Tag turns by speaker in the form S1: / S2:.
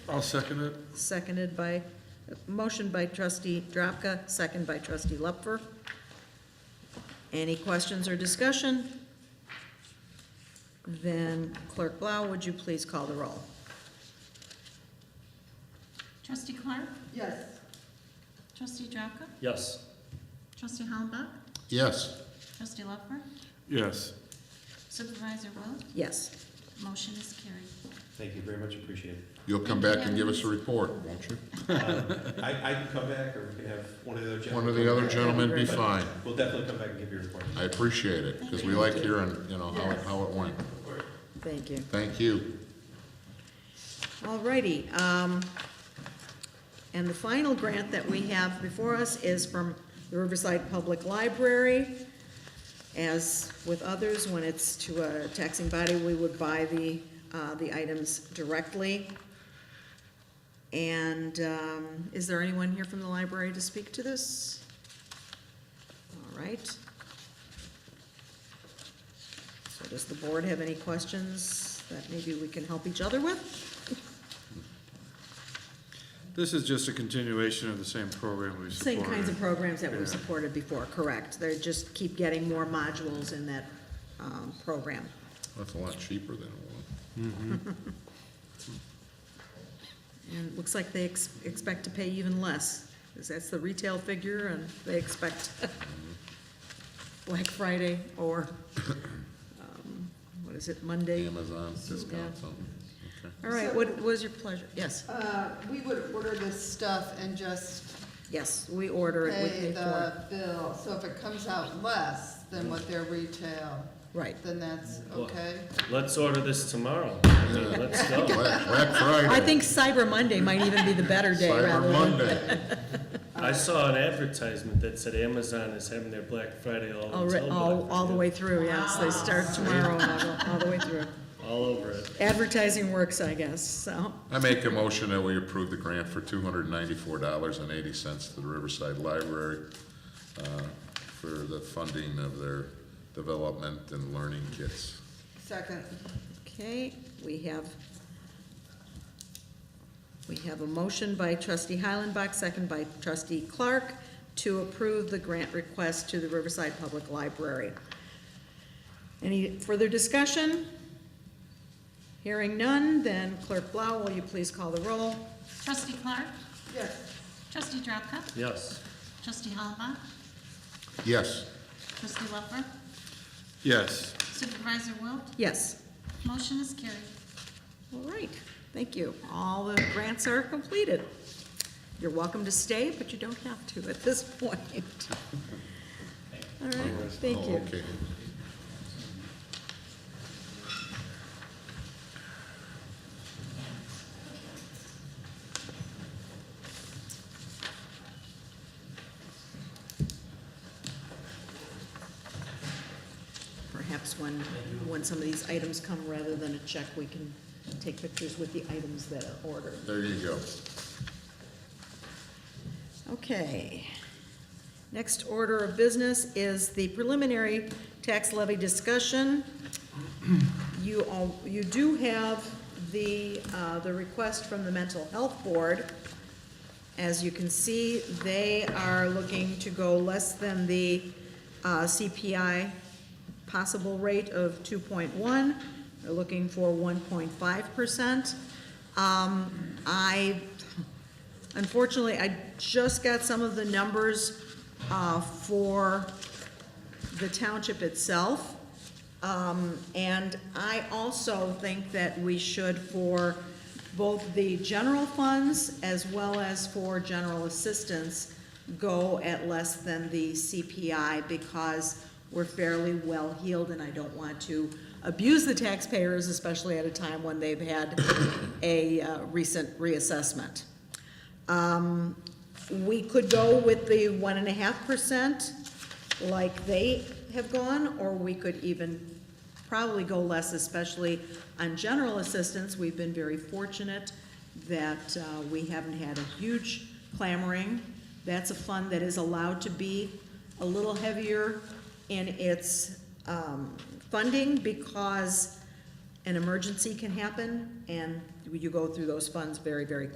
S1: I'll second it.
S2: seconded by, motion by trustee Drapka, second by trustee Lupfer. Any questions or discussion? Then clerk Blau, would you please call the roll?
S3: Trustee Clark?
S4: yes,
S3: Trustee Drapka?
S5: Yes.
S3: Trustee Hollenbach?
S6: yes,
S3: Trustee Lupfer?
S1: Yes.
S3: Supervisor Wilt?
S2: Yes,
S3: Motion is carried.
S7: Thank you very much, appreciate it.
S6: you'll come back and give us a report, won't you?
S7: I, I can come back, or we can have one of the other gentlemen.
S6: One of the other gentlemen be fine.
S7: We'll definitely come back and give you a report.
S6: I appreciate it, because we like hearing, you know, how, it how it went.
S2: thank you.
S6: Thank you.
S2: Alrighty, um, and the final grant that we have before us is from the Riverside Public Library. As with others, when it's to a taxing body, we would buy the, uh, the items directly. And, um, is there anyone here from the library to speak to this? All right. So does the board have any questions that maybe we can help each other with?
S1: This is just a continuation of the same program we supported.
S2: Same kinds of programs that
S1: Yeah.
S2: we've supported before, correct. They just keep getting more modules in that um, program.
S6: That's a lot cheaper than it was.
S2: And it looks like they ex- expect to pay even less, because that's the retail figure, and they expect Black Friday or, um, what is it, Monday?
S6: Amazon discount something, okay.
S2: All right, what what is your pleasure? Yes,
S4: uh, we would order this stuff and just
S2: yes, we order it, we
S4: pay
S2: pay for
S4: the bill, so if it comes out less than what their retail,
S2: it. Right.
S4: then that's okay?
S5: Let's order this tomorrow. I mean, Let's go.
S6: Black, Black Friday.
S2: I think Cyber Monday might even be the better day rather
S6: Cyber
S2: than.
S6: Monday.
S5: I saw an advertisement that said Amazon is having their Black Friday all
S2: All, ri-
S5: until
S2: all,
S5: Black
S2: all the
S5: Friday.
S2: way through, yes, they start tomorrow, and all, all the way through.
S5: All over it.
S2: Advertising works, I guess, so,
S6: I make a motion that we approve the grant for two hundred and ninety-four dollars and eighty cents to the Riverside Library uh, for the funding of their development and learning kits.
S4: Second,
S2: okay, we have, we have a motion by trustee Heilenbach, second by trustee Clark, to approve the grant request to the Riverside Public Library. Any further discussion? Hearing none, then clerk Blau, will you please call the roll?
S3: Trustee Clark?
S4: yes.
S3: Trustee Drapka?
S5: Yes.
S3: Trustee Hollenbach?
S6: Yes,
S3: Trustee Lupfer?
S1: Yes.
S3: Supervisor Wilt?
S2: Yes.
S3: Motion is carried.
S2: All right, thank you. All the grants are completed. You're welcome to stay, but you don't have to at this point. All right, thank
S6: oh,
S2: you.
S6: okay.
S2: Perhaps when, when some of these items come, rather than a check, we can take pictures with the items that are ordered.
S6: There you go.
S2: Okay. Next order of business is the preliminary tax levy discussion. You all, you do have the, uh, the request from the Mental Health Board. As you can see, they are looking to go less than the uh, CPI possible rate of 2.1. They're looking for 1.5%. Um, I, unfortunately, I just got some of the numbers uh, for the township itself. Um, And I also think that we should, for both the general funds as well as for general assistance, go at less than the CPI because we're fairly well-heeled, and I don't want to abuse the taxpayers, especially at a time when they've had a uh, recent reassessment. Um, We could go with the one and a half percent like they have gone, or we could even probably go less, especially on general assistance. We've been very fortunate that uh, we haven't had a huge clamoring. That's a fund that is allowed to be a little heavier in its um, funding because an emergency can happen, and you go through those funds very, very